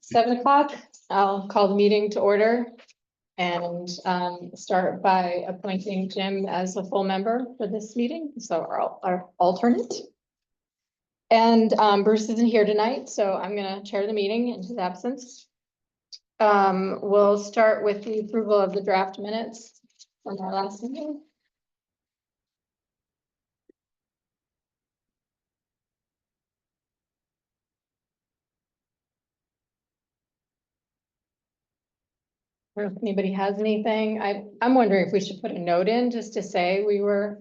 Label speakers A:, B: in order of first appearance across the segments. A: Seven o'clock, I'll call the meeting to order. And um, start by appointing Jim as a full member for this meeting, so our, our alternate. And um, Bruce isn't here tonight, so I'm gonna chair the meeting in his absence. Um, we'll start with the approval of the draft minutes from our last meeting. Or if anybody has anything, I, I'm wondering if we should put a note in just to say we were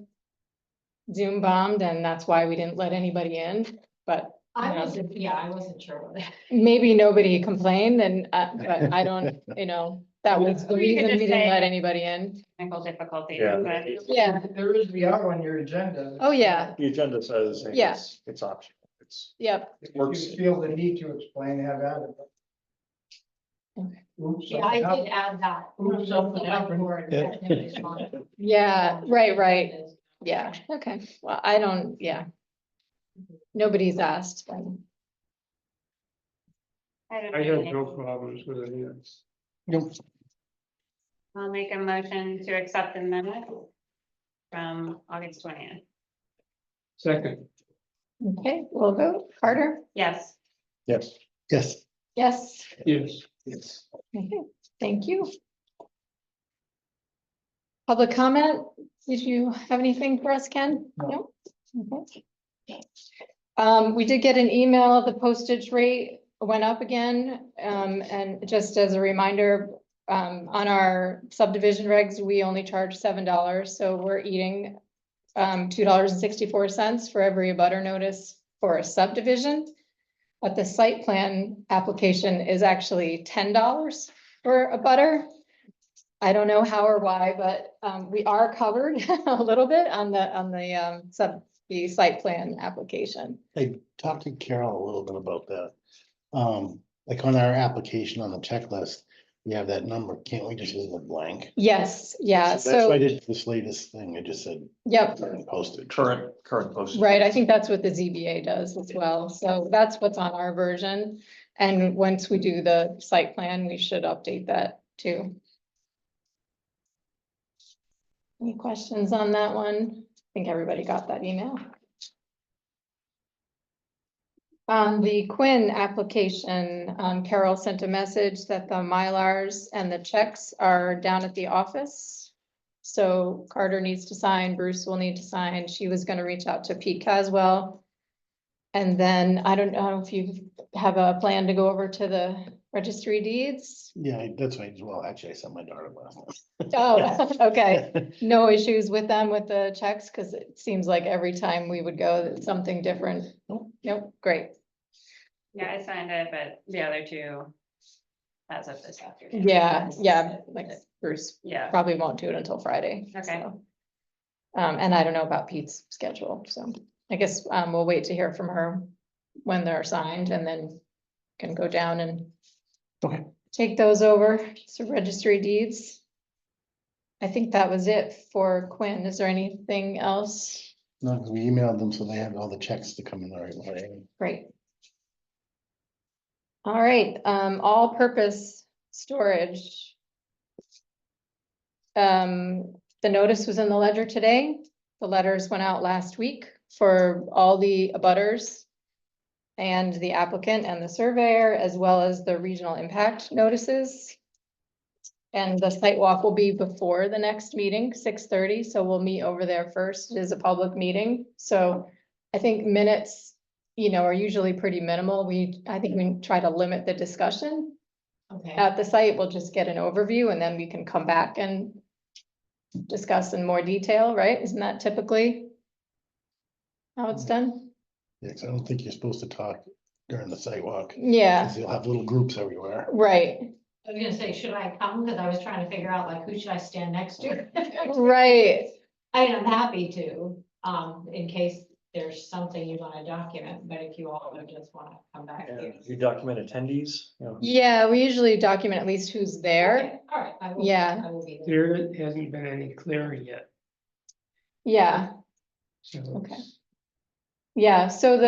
A: Zoom bombed and that's why we didn't let anybody in, but
B: I
A: Yeah.
B: wasn't, yeah, I wasn't sure about that.
A: maybe nobody complained and, uh, but I don't, you know, that was the
C: Or you
A: reason we
C: could just
A: didn't
C: say-
A: let anybody in.
C: technical difficulties,
D: Yeah.
C: but
A: Yeah,
E: There is the hour on your agenda.
A: Oh, yeah.
D: The agenda says.
A: Yeah.
D: it's- It's optional, it's,
A: yep,
D: it
E: If
D: works,
E: you feel the need to explain, have at it.
A: Okay.
E: Oops,
B: Yeah, I
E: something
B: did
E: happened.
B: add that.
E: Oops, something happened.
A: yeah, right, right, yeah, okay, well, I don't, yeah. Nobody's asked, but
C: I don't
F: I
C: have
F: have no
C: any.
F: problems with any of this.
C: I'll make a motion to accept the minutes from August twentieth.
F: Second,
A: okay, we'll vote, Carter,
C: Yes,
D: yes.
E: Yes.
A: yes,
F: yes,
D: Yes.
A: okay, thank you. Public comment, did you have anything for us, Ken? No.
E: No.
A: Okay. Um, we did get an email, the postage rate went up again, um, and just as a reminder. Um, on our subdivision regs, we only charge seven dollars, so we're eating. Um, two dollars and sixty-four cents for every abutter notice for a subdivision. But the site plan application is actually ten dollars for a butter. I don't know how or why, but, um, we are covered a little bit on the, on the, um, sub, the site plan application.
G: I talked to Carol a little bit about that. Um, like on our application on the checklist, we have that number. Can't we just leave it blank?
A: Yes, yeah,
G: That's what I
A: Uh, so,
G: did this latest thing. I just said
A: yep,
G: posted.
D: Current, current posted.
A: right, I think that's what the ZBA does as well, so that's what's on our version. And once we do the site plan, we should update that too. Any questions on that one? I think everybody got that email. On the Quinn application, um, Carol sent a message that the Mylars and the checks are down at the office. So Carter needs to sign, Bruce will need to sign. She was gonna reach out to Pete Caswell. And then I don't know if you have a plan to go over to the registry deeds.
G: Yeah, I- that's why, well, actually, I sent my daughter last night.
A: Oh, okay no issues with them with the checks, because it seems like every time we would go, that something different. Nope, Nope, great.
C: yeah, I signed it, but the other two as of this afternoon.
A: Yeah, yeah, like Bruce
C: Yeah,
A: probably won't do it until Friday.
C: Okay.
A: so. Um, and I don't know about Pete's schedule, so I guess, um, we'll wait to hear from her when they're signed and then can go down and
G: Okay.
A: take those over to registry deeds. I think that was it for Quinn. Is there anything else?
G: No, 'cause we emailed them, so they had all the checks to come in the right way.
A: Great. All right, um, all-purpose storage. Um, the notice was in the ledger today. The letters went out last week for all the abutters and the applicant and the surveyor, as well as the regional impact notices. And the site walk will be before the next meeting, six thirty, so we'll meet over there first. It is a public meeting, so I think minutes you know, are usually pretty minimal. We, I think we try to limit the discussion
B: Okay,
A: at the site. We'll just get an overview and then we can come back and discuss in more detail, right? Isn't that typically how it's done?
G: Yeah, 'cause I don't think you're supposed to talk during the sidewalk.
A: Yeah,
G: 'cause you'll have little groups everywhere.
A: right,
B: I was gonna say, should I come? Cause I was trying to figure out like, who should I stand next to?
A: right.
B: I am happy to, um, in case there's something you wanna document, but if you all would just wanna come back. here.
D: You document attendees, you know,
A: Yeah, we usually document at least who's there.
B: Okay, All right. I will-
A: Yeah.
B: I will be there.
F: there hasn't been any clearing yet,
A: Yeah,
F: so.
A: Okay. yeah. So the